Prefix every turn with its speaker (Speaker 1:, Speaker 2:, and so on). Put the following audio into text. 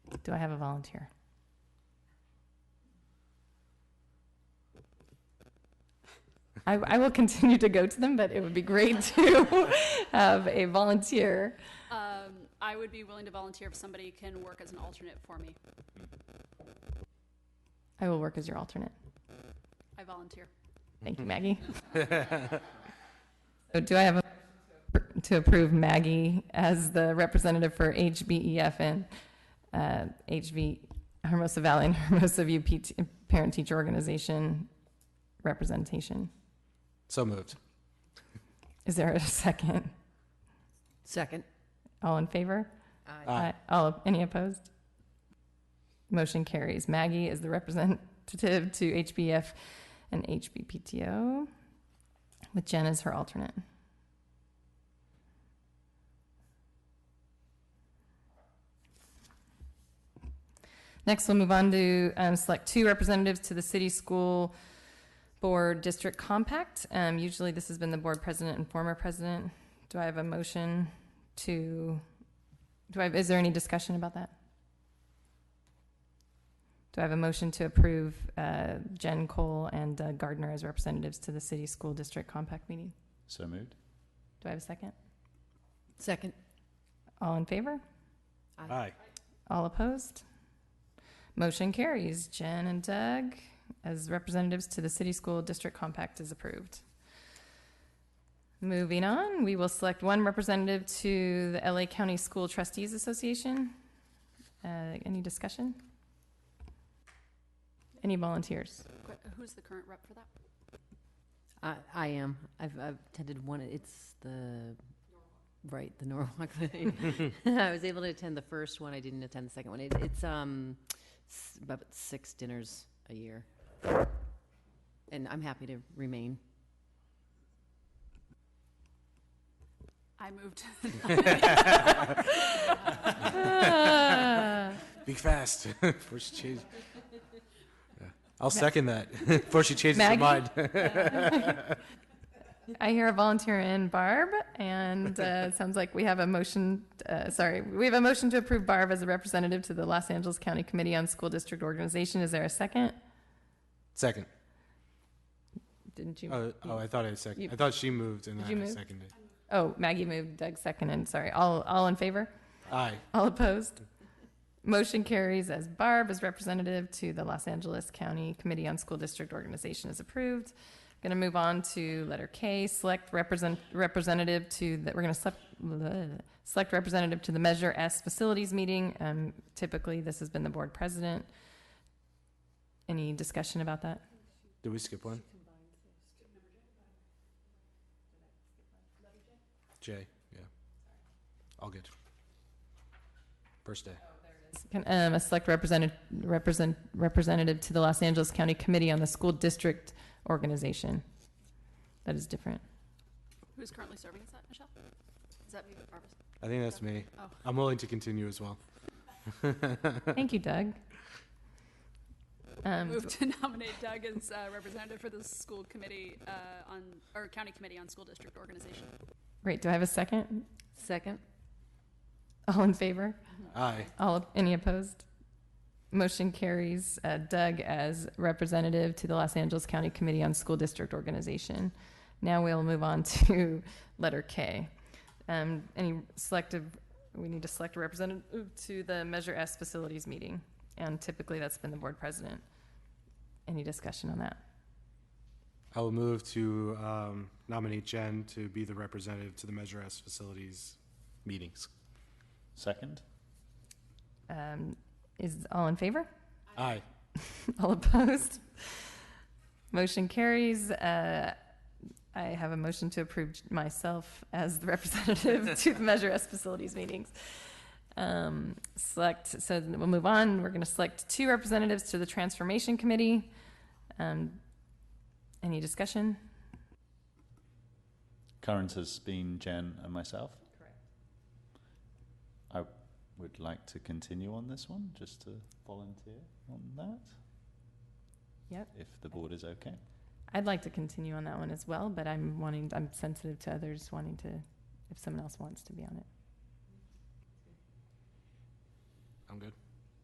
Speaker 1: Do I have a volunteer? I, I will continue to go to them, but it would be great to have a volunteer.
Speaker 2: Um, I would be willing to volunteer if somebody can work as an alternate for me.
Speaker 1: I will work as your alternate.
Speaker 2: I volunteer.
Speaker 1: Thank you, Maggie. So do I have a, to approve Maggie as the representative for HBEFN, uh, HV, Hermosa Valley and Hermosa View PT Parent Teacher Organization representation?
Speaker 3: So moved.
Speaker 1: Is there a second?
Speaker 4: Second. Uh,
Speaker 1: All in favor?
Speaker 3: Aye.
Speaker 1: All, any opposed? Motion carries. Maggie is the representative to HBF and HBPTO, with Jen as her alternate. Next, we'll move on to um, select two representatives to the city school board district compact. Um, Usually, this has been the board president and former president. Do I have a motion to do I, have- is there any discussion about that? Do I have a motion to approve uh, Jen Cole and Doug Gardner as representatives to the city school district compact meeting?
Speaker 5: So moved.
Speaker 1: Do I have a second?
Speaker 4: Second.
Speaker 1: All in favor?
Speaker 3: Aye.
Speaker 1: All opposed? Motion carries. Jen and Doug as representatives to the city school district compact is approved. Moving on, we will select one representative to the LA County School Trustees Association. Uh, any discussion? Any volunteers?
Speaker 2: Qu- Who's the current rep for that?
Speaker 4: I, I am. I've, I've attended one. It's the, right, the Norwalk thing. I was able to attend the first one. I didn't attend the second one. It, it's, um, s- about six dinners a year. And I'm happy to remain.
Speaker 2: I moved.
Speaker 1: Ah,
Speaker 3: Be fast before she changes. Yeah. I'll second that before she changes her
Speaker 1: Maggie?
Speaker 3: mind.
Speaker 1: I hear a volunteer in Barb, and uh, it sounds like we have a motion, uh, sorry, we have a motion to approve Barb as a representative to the Los Angeles County Committee on School District Organization. Is there a second?
Speaker 3: Second.
Speaker 1: Didn't you?
Speaker 3: Oh, oh, I thought I seconded.
Speaker 1: You-
Speaker 3: I thought she moved and
Speaker 1: Did
Speaker 3: I
Speaker 1: you move?
Speaker 3: seconded.
Speaker 1: Oh, Maggie moved, Doug seconded, sorry. All, all in favor?
Speaker 3: Aye.
Speaker 1: All opposed? Motion carries as Barb is representative to the Los Angeles County Committee on School District Organization is approved. Going to move on to letter K, select represent, representative to, the we're going to select, bleh, select representative to the Measure S Facilities Meeting. Um, typically, this has been the board president. Any discussion about that?
Speaker 3: Did we skip one? J, yeah. All good. First day.
Speaker 1: Can, um, a select representative, represent, representative to the Los Angeles County Committee on the School District Organization. That is different.
Speaker 2: Who's currently serving as that, Michelle? Is that Barbara?
Speaker 3: I think that's me.
Speaker 2: Oh.
Speaker 3: I'm willing to continue as well.
Speaker 1: Thank you, Doug. Um,
Speaker 2: Move to nominate Doug as uh, representative for the school committee uh, on, or county committee on school district organization.
Speaker 1: Great, do I have a second?
Speaker 4: Second.
Speaker 1: All in favor?
Speaker 3: Aye.
Speaker 1: All, any opposed? Motion carries uh, Doug as representative to the Los Angeles County Committee on School District Organization. Now we'll move on to letter K. Um, Any selective, we need to select a representative to the Measure S Facilities meeting, and typically that's been the board president. Any discussion on that?
Speaker 3: I will move to um, nominate Jen to be the representative to the Measure S facilities meetings.
Speaker 5: Second.
Speaker 1: Um, Is, all in favor?
Speaker 3: Aye.
Speaker 1: All opposed? Motion carries. Uh, I have a motion to approve myself as the representative to the Measure S facilities meetings. Um, Select, so we'll move on. We're going to select two representatives to the Transformation Committee. Um, Any discussion?
Speaker 5: Current has been Jen and myself. Correct. I would like to continue on this one, just to volunteer on that.
Speaker 1: Yep.
Speaker 5: If the board is okay.
Speaker 1: I'd like to continue on that one as well, but I'm wanting, I'm sensitive to others wanting to, if someone else wants to be on it.
Speaker 3: I'm good.